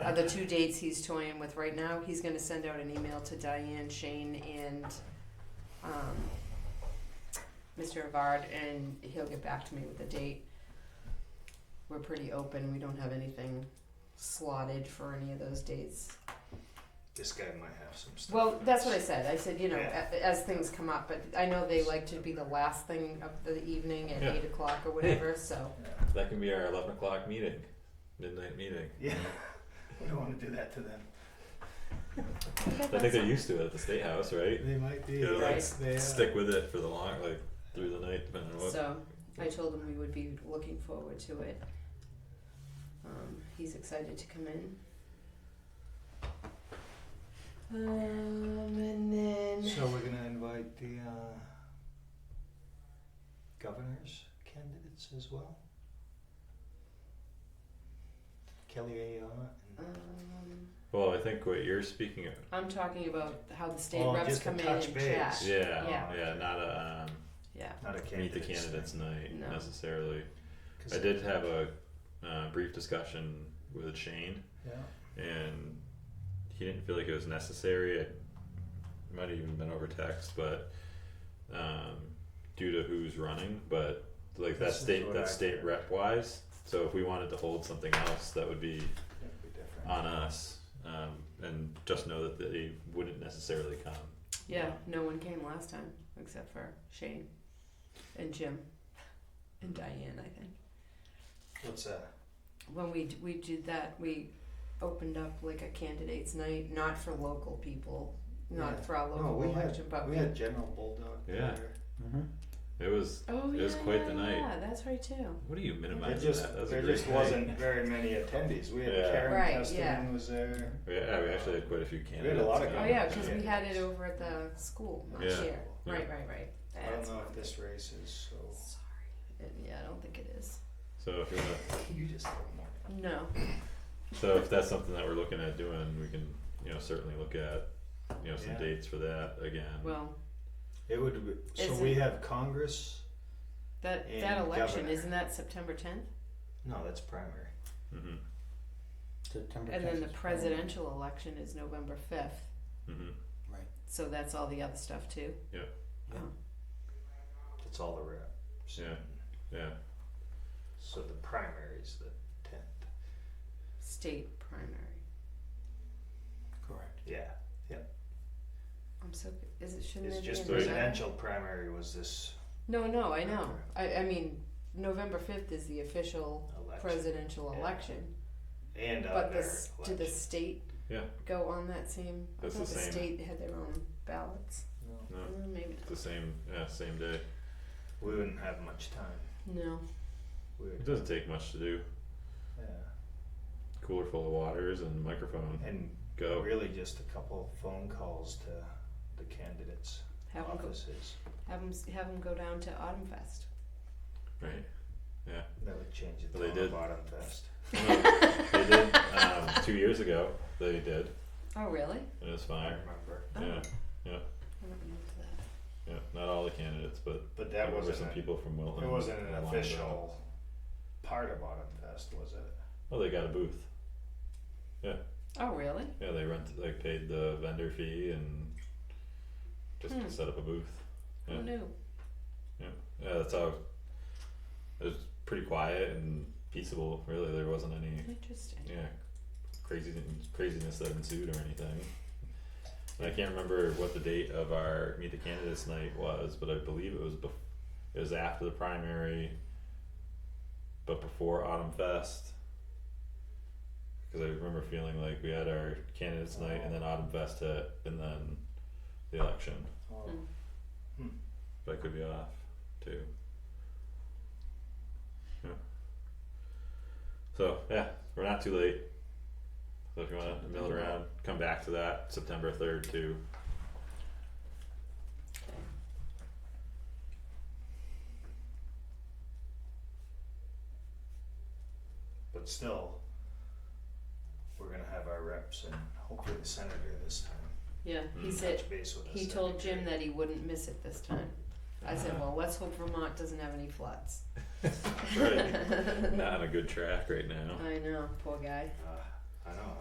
are the two dates he's toying with right now. He's gonna send out an email to Diane, Shane, and, um, Mr. Avard, and he'll get back to me with the date. We're pretty open, we don't have anything slotted for any of those dates. This guy might have some stuff. Well, that's what I said, I said, you know, Yeah. a- as things come up, but I know they like to be the last thing of the evening at Yeah. eight o'clock or whatever, so. That can be our 11 o'clock meeting, midnight meeting. Yeah, we don't want to do that to them. I think they're used to it at the state house, right? They might be. Yeah, like, they are. Stick with it for the long, like through the night, depending on what. So I told him we would be looking forward to it. Um, he's excited to come in. Um, and then So we're gonna invite the uh, governor's candidates as well. Kelly A. uh, um, and well, I think what you're speaking of, I'm talking about how the state Oh, reps just to come in touch and base. chat. yeah, Yeah. yeah, not a Yeah. not a um, candidate. meet the candidates night No. necessarily. I did have a uh, brief discussion with Shane, Yeah. and he didn't feel like it was necessary. It might have even been over text, but um, due to who's running, but like that This is state what I that state heard. rep wise. So if we wanted to hold something else, that would be That'd be different. on us, um, and just know that they wouldn't necessarily come. Yeah, no one came last time except for Shane and Jim and Diane, I think. What's that? when we d- we did that, we opened up like a candidates night, not for local people, not Yeah. for our local No, we had- election, but We had General Bulldog Yeah. there. It was. oh it yeah, was quite yeah, the night. Yeah, that's right too. What are you There minimizing? just that? That was a there great just night. wasn't very many attendees. We had Yeah. Karen Right, Custerman yeah. was there. Yeah, we actually had quite a few candidates. had a lot of come. Oh Yeah. yeah, because we had it over at the school last Yeah. year. Yeah. Right, right, right. I don't That's know if not this race is good. so. Sorry, Uh, yeah, I don't think it is. So if you wanna, You just don't know. No, so if that's something that we're looking at doing, we can, you know, certainly look at, you know, some Yeah. dates for that again. well, It would be, so Is we it- have Congress. that And that election governor. isn't that September tenth, No, that's primary. Mhm, September and then 10th the is presidential election is November fifth. mhm. So that's all the other stuff too. That's all the reps. Yeah. Yeah, So the primary's the tenth. State primary. Friday. Correct. Yeah. I'm so. Is it shouldn't It's it just be in the November? presidential primary was this No, no, I know. I, I mean, November fifth is the official election. presidential Yeah. election, And but other the s- did the elections. state Yeah. go on that same? I That's thought the the same. state had their own ballots. No, no, Mm, maybe it's the same, yeah, same day. we wouldn't have much time. not. no. We It would, doesn't take much to do. yeah. Cooler full of waters and microphone. And Go. really just a couple phone calls to the candidates' Have them go. offices. Have them. Have 'em go down to Autumn Fest. Right. That would change the Well, they tone of did. Autumn Fest. They did um, two years ago. They did. Oh really? and It was I fine. remember. Oh. Yeah, I don't know if that- yeah. Not all the candidates, but But there that were wasn't some a- people from Wilton. It wasn't an that lined up. official part of Autumn Fest, was it? Oh, they got a booth. Oh really? Yeah, they rent they paid the vendor fee and just Hmm. set up a booth. Yeah. Who knew? Yeah, that's how it was pretty quiet and peaceable. Really, there wasn't any Interesting. yeah crazy craziness that ensued or anything. And I can't remember what the date of our meet the candidates night was, but I believe it was bef- it was after the primary, but before Autumn Fest. Because I remember feeling like we had our candidates night and then Autumn Fest hit and then the election, Oh, Hmm. but I could be off too. Yeah. So yeah, we're not too late. So if you want to mill around, come back to that September third too. But still, we're gonna have our reps and hopefully the senator this time. Yeah. He Mm. said Touch base with the he told Jim secretary. that he wouldn't miss it this time. I said, Uh-huh. well, let's hope Vermont doesn't have any floods. Right. not on a good track right now. I know, poor guy. Uh, I know,